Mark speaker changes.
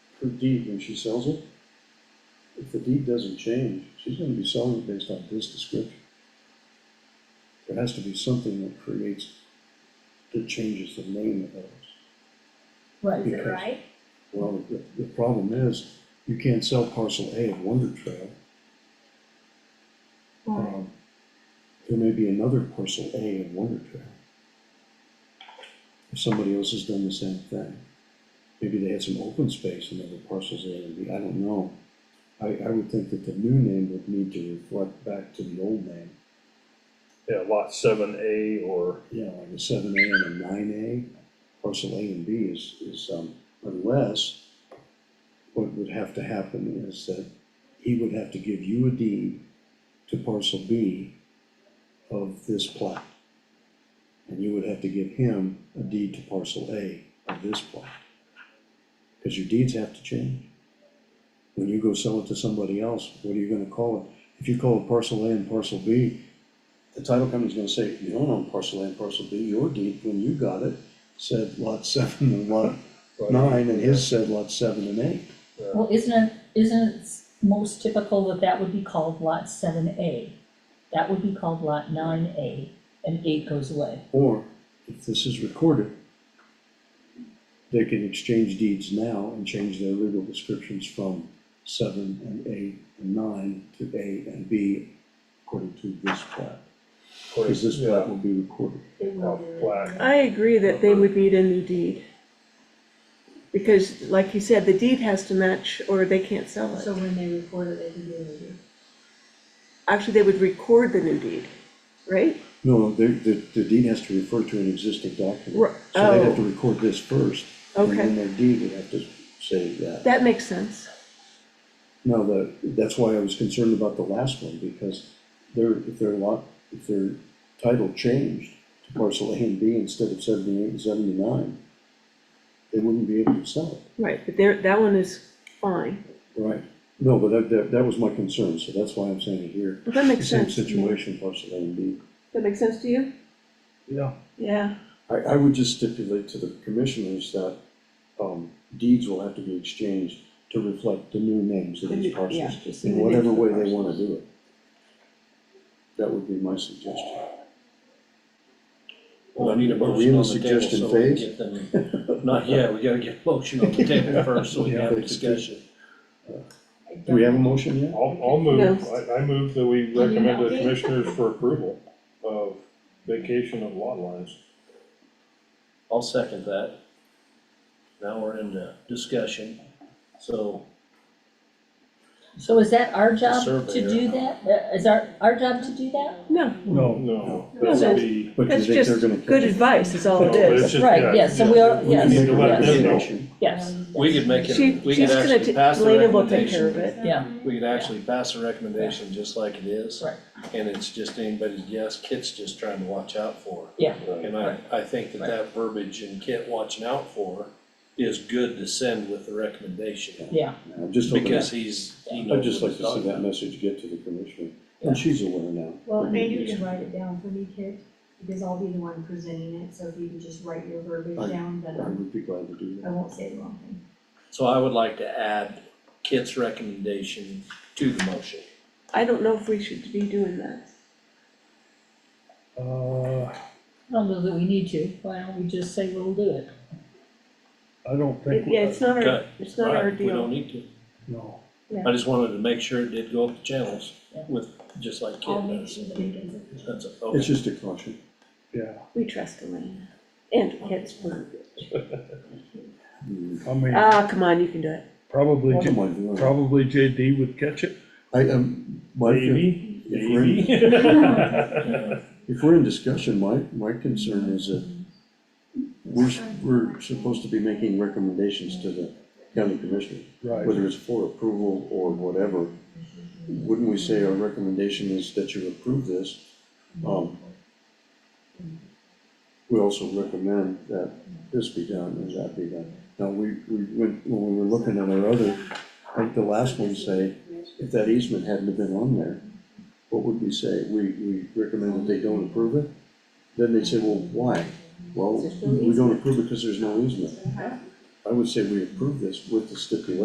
Speaker 1: her deed when she sells it, if the deed doesn't change, she's gonna be selling it based on this description. There has to be something that creates, that changes the name of those.
Speaker 2: Right.
Speaker 1: Because-
Speaker 3: right?
Speaker 1: Well, the, the problem is, you can't sell parcel A of Wonder Trail. Um, There may be another parcel A of Wonder Trail. If Somebody else has done the same thing. Maybe they had some open space in other parcels A and B, I don't know. I, I would think that the new name would need to reflect back to the old name.
Speaker 4: Yeah, lot seven A or,
Speaker 1: you know, like a seven A and a nine A, parcel A and B is, is, um, unless what would have to happen is that he would have to give you a deed to parcel B of this plat. And you would have to give him a deed to parcel A of this plat. Cause your deeds have to change. When you go sell it to somebody else, what are you gonna call it? If you call it parcel A and parcel B, the title company's gonna say, you don't own parcel A and parcel B, your deed, when you got it, said lot seven and lot nine, and his said lot seven and eight.
Speaker 4: uh,
Speaker 2: Well, isn't it, isn't it s- most typical that that would be called lot seven A? That would be called lot nine A, and eight goes away.
Speaker 1: Or, if this is recorded, they can exchange deeds now and change their legal descriptions from seven and eight and nine to A and B, according to this plat, because this plat
Speaker 4: yeah, uh,
Speaker 1: will be recorded.
Speaker 3: It will do it.
Speaker 4: flat,
Speaker 5: I agree that they would need a new deed. Because like you said, the deed has to match or they can't sell
Speaker 3: So
Speaker 5: it.
Speaker 3: when they record it, they can do it.
Speaker 5: Actually, they would record the new deed, right?
Speaker 1: No, the, the, the deed has to refer to an existing document.
Speaker 5: Ri-
Speaker 1: So they have to
Speaker 5: oh.
Speaker 1: record this first, and
Speaker 5: Okay.
Speaker 1: then their deed would have to say that.
Speaker 5: That makes sense.
Speaker 1: No, the, that's why I was concerned about the last one, because their, if their lot, if their title changed to parcel A and B instead of seventy-eight and seventy-nine, they wouldn't be able to sell it.
Speaker 5: Right, but there, that one is fine.
Speaker 1: Right. No, but that, that, that was my concern, so that's why I'm saying it here.
Speaker 5: Well, that makes
Speaker 1: Same
Speaker 5: sense. to me.
Speaker 1: situation, parcel A and B.
Speaker 5: That makes sense to you?
Speaker 1: Yeah.
Speaker 5: Yeah,
Speaker 1: I, I would just stipulate to the commissioners that, um, deeds will have to be exchanged to reflect the new names of
Speaker 5: The
Speaker 1: these
Speaker 5: new- yeah,
Speaker 1: parcels,
Speaker 5: just
Speaker 1: in
Speaker 5: the new names
Speaker 1: whatever
Speaker 5: of the
Speaker 1: way they wanna
Speaker 5: parcels.
Speaker 1: do it. That would be my suggestion.
Speaker 6: Well, I need a
Speaker 1: Are we in
Speaker 6: motion
Speaker 1: the
Speaker 6: on the table,
Speaker 1: suggestion
Speaker 6: so we can
Speaker 1: phase?
Speaker 6: get them, not yet, we gotta get motion on the table first, so we can have a discussion.
Speaker 1: Do we have a motion yet?
Speaker 4: I'll, I'll move, I, I move that
Speaker 2: Oh,
Speaker 4: we
Speaker 3: Well, you
Speaker 4: recommend
Speaker 3: know,
Speaker 4: the
Speaker 3: they-
Speaker 4: commissioners for approval of vacation of lot lines.
Speaker 6: I'll second that. Now we're in the discussion, so
Speaker 2: So is that our job to
Speaker 6: surveyor.
Speaker 2: do that? Uh, Is our, our job to do that?
Speaker 5: no,
Speaker 1: No.
Speaker 4: No,
Speaker 5: No,
Speaker 4: that would
Speaker 5: that's-
Speaker 4: be,
Speaker 1: But do you
Speaker 5: that's
Speaker 1: think they're
Speaker 5: just
Speaker 1: gonna?
Speaker 5: good advice, is all it
Speaker 4: No, it's
Speaker 5: is.
Speaker 4: just-
Speaker 2: Right,
Speaker 4: yeah,
Speaker 2: yes, so
Speaker 4: yeah.
Speaker 2: we are,
Speaker 1: We can
Speaker 2: yes,
Speaker 1: make a
Speaker 4: Let them know.
Speaker 2: yes,
Speaker 1: recommendation.
Speaker 2: yes.
Speaker 6: we could make
Speaker 5: She,
Speaker 6: it, we
Speaker 5: she's
Speaker 6: could
Speaker 5: gonna,
Speaker 6: actually
Speaker 5: ta-
Speaker 6: pass the
Speaker 5: Lena will take care of it.
Speaker 6: recommendation.
Speaker 2: Yeah.
Speaker 6: We could actually pass the recommendation just like it is.
Speaker 2: Right.
Speaker 6: And it's just anybody's guess, Kit's just trying to watch out for.
Speaker 4: Right.
Speaker 6: And I, I think that that verbiage and Kit watching out for is good to send with the recommendation.
Speaker 2: Yeah,
Speaker 1: I'm just hoping,
Speaker 6: Because
Speaker 1: that-
Speaker 6: he's, he
Speaker 1: I'd
Speaker 6: knows
Speaker 1: just
Speaker 6: what
Speaker 1: like
Speaker 6: he's
Speaker 1: to see
Speaker 6: talking
Speaker 1: that
Speaker 6: about.
Speaker 1: message get to the commissioner, and she's aware now.
Speaker 3: Well,
Speaker 1: Mhm.
Speaker 3: maybe you can write it down for me, Kit, because I'll be the one presenting it, so if you can just write your
Speaker 1: I-
Speaker 3: verbiage down,
Speaker 1: I
Speaker 3: then I'm-
Speaker 1: would be glad to do
Speaker 3: I
Speaker 1: that.
Speaker 3: won't say the wrong thing.
Speaker 6: So I would like to add Kit's recommendation to the motion.
Speaker 5: I don't know if we should be doing that.
Speaker 7: Uh,
Speaker 2: I don't know that we need to, why don't we just say we'll do it?
Speaker 7: I don't think,
Speaker 5: Yeah, it's not our,
Speaker 6: Okay.
Speaker 5: it's not our
Speaker 6: Right, We don't
Speaker 5: deal.
Speaker 6: need to.
Speaker 7: no,
Speaker 6: I just wanted to make sure it did go up the channels
Speaker 2: Yeah.
Speaker 6: with, just like
Speaker 3: I'll
Speaker 6: Kit
Speaker 3: make
Speaker 6: does.
Speaker 3: sure that it gets it.
Speaker 6: That's, a-
Speaker 1: It's
Speaker 6: okay,
Speaker 1: just a caution.
Speaker 7: yeah,
Speaker 5: We trust Elena and Kit's verbiage.
Speaker 7: I mean,
Speaker 5: Ah, come on, you can do it.
Speaker 7: probably,
Speaker 1: What am
Speaker 7: J-
Speaker 1: I doing?
Speaker 7: probably JD would catch it.
Speaker 1: I, um, my, if
Speaker 4: Maybe,
Speaker 1: we're in-
Speaker 4: maybe.
Speaker 1: if we're in discussion, my, my concern is that we're, s- we're supposed to be making recommendations to the county commissioner,
Speaker 7: Right.
Speaker 1: whether it's for approval or whatever. Wouldn't we say our recommendation is that you approve this? Um, We also recommend that this be done and that be done. Now, we, we, went- when we were looking at our other, I think the last one say, if that easement hadn't have been on there, what would we say? We, we recommend that they don't approve it? Then they say, well, why? Well, we don't approve it because there's no easement. I would say we approve this with the stipulation